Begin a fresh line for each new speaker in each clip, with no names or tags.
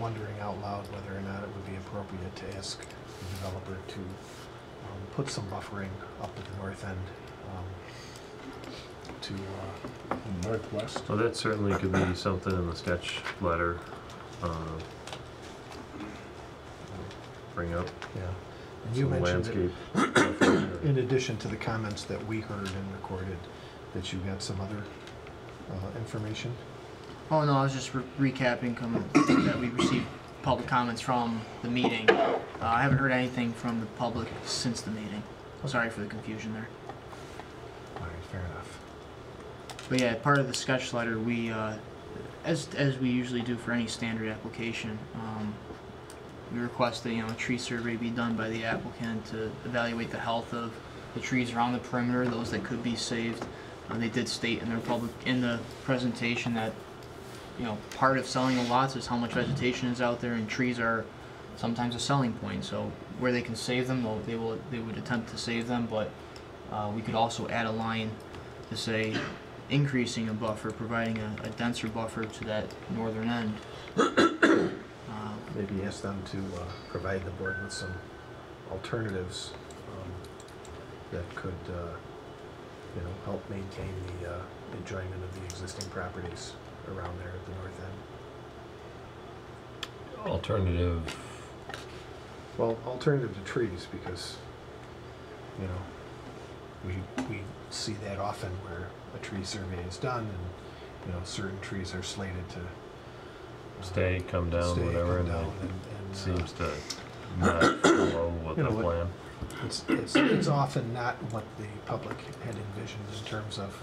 wondering out loud whether or not it would be appropriate to ask the developer to um, put some buffering up at the north end um, to, uh,
Northwest.
Well, that certainly could be something in the sketch letter, uh, bring up
yeah. And you
some
mentioned it
landscape. stuff in
in
there.
addition to the comments that we heard and recorded, that you got some other uh, information?
Oh no, I was just re- recapping com- that we received public comments from the meeting. Uh, I haven't heard anything from the public since the meeting. Oh, Sorry for the confusion there.
All right, fair enough.
But yeah, part of the sketch letter, we, uh, as, as we usually do for any standard application, um, we request that, you know, a tree survey be done by the applicant to evaluate the health of the trees around the perimeter, those that could be saved. Uh, they did state in their public, in the presentation that, you know, part of selling the lots is how much vegetation is out there and trees are sometimes a selling point, so where they can save them, they'll, they will, they would attempt to save them, but, uh, we could also add a line to say, increasing a buffer, providing a, a denser buffer to that northern end. Uh,
Maybe ask them to uh, provide the board with some alternatives um, that could, uh, you know, help maintain the uh, enjoyment of the existing properties around there at the north end.
Alternative,
Well, alternative to trees, because, you know, we, we see that often where a tree survey is done and, you know, certain trees are slated to. uh,
Stay, come down,
stay,
whatever,
come
and
down,
it
and- and, uh,
seems to not follow with
You know
the
what?
plan.
It's, it's, it's often not what the public had envisioned in terms of,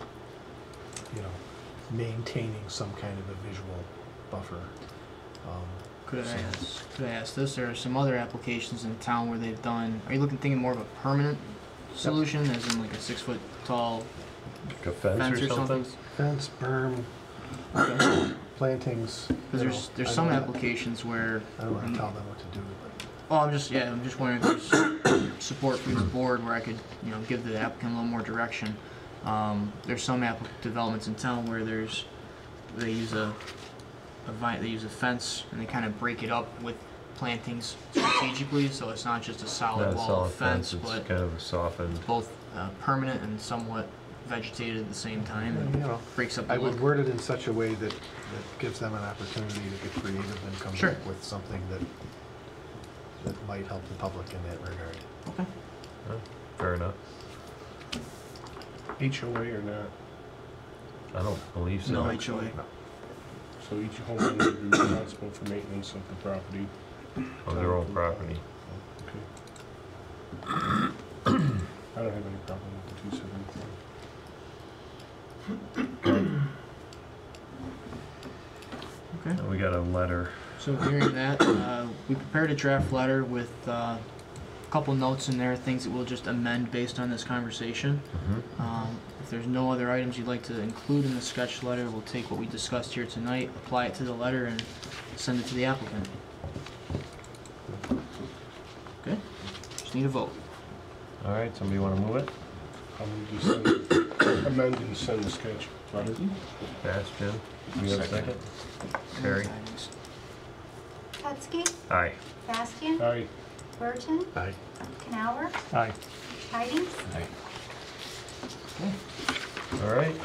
you know, maintaining some kind of a visual buffer. Um,
Could I ask, could I ask this, there are some other applications in town where they've done, are you looking, thinking more of a permanent solution, as in like a six foot tall
Like a fence
fence
or something?
Fence, berm, plantings.
Cause
you
there's,
know,
there's
I
some
don't-
applications where,
I don't wanna tell them what to do, but
oh, I'm just, yeah, I'm just wondering if there's support from the board where I could, you know, give the applicant a little more direction. Um, there's some app, developments in town where there's, they use a, a vine, they use a fence and they kind of break it up with plantings strategically, so it's not just a
Not
solid
a
wall
solid
of fence,
fence, it's
but
kind of a softened,
both uh, permanent and somewhat vegetated at the same time
you
and
know,
breaks up the
I would
look.
word it in such a way that, that gives them an opportunity to get creative and come
Sure.
up with something that, that might help the public in that regard.
Okay.
fair enough.
HOA or not,
I don't believe so.
No HOA.
so each homeowner would be responsible for maintenance of the property.
On their own property.
I don't have any problem with the two seventy-four.
Okay.
We got a letter.
So hearing that, uh, we prepared a draft letter with uh, a couple notes in there, things that we'll just amend based on this conversation.
Mm-hmm.
Um, If there's no other items you'd like to include in the sketch letter, we'll take what we discussed here tonight, apply it to the letter, and send it to the applicant. Okay, just need a vote.
All right, somebody want to move it?
I'll move to send, amend and send the sketch letter.
Pass, Jim? You have a second? Carrie?
Hetzke,
Aye.
Bastian,
Aye.
Burton,
Aye.
Canower,
Aye.
Tidings.
Okay,
All right,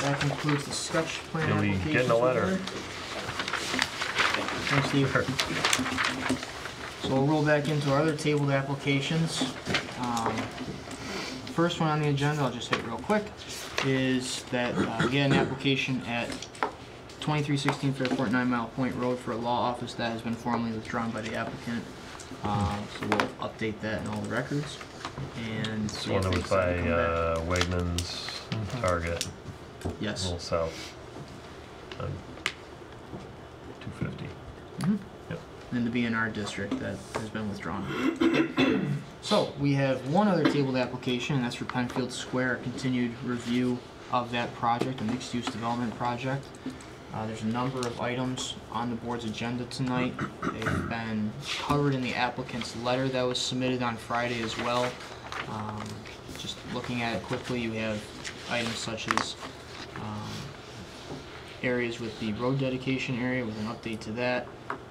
That concludes the sketch plan
You'll be
application.
getting a letter.
Thanks, Steve. So we'll roll back into our other tabled applications. Um, First one on the agenda, I'll just hit real quick, is that, uh, we had an application at 2316 Fairport Nine Mile Point Road for a law office that has been formally withdrawn by the applicant. Uh, So we'll update that in all the records and
this
see
one
if
that
they
was
decide
by
to come back.
uh, Wegmans Target, a
Yes.
little south. on 250.
in the BNR district that has been withdrawn. So, we have one other tabled application, and that's for Penfield Square, continued review of that project, a mixed-use development project. Uh, there's a number of items on the board's agenda tonight. They've been covered in the applicant's letter that was submitted on Friday as well. Um, just looking at it quickly, you have items such as, um, areas with the road dedication area with an update to that,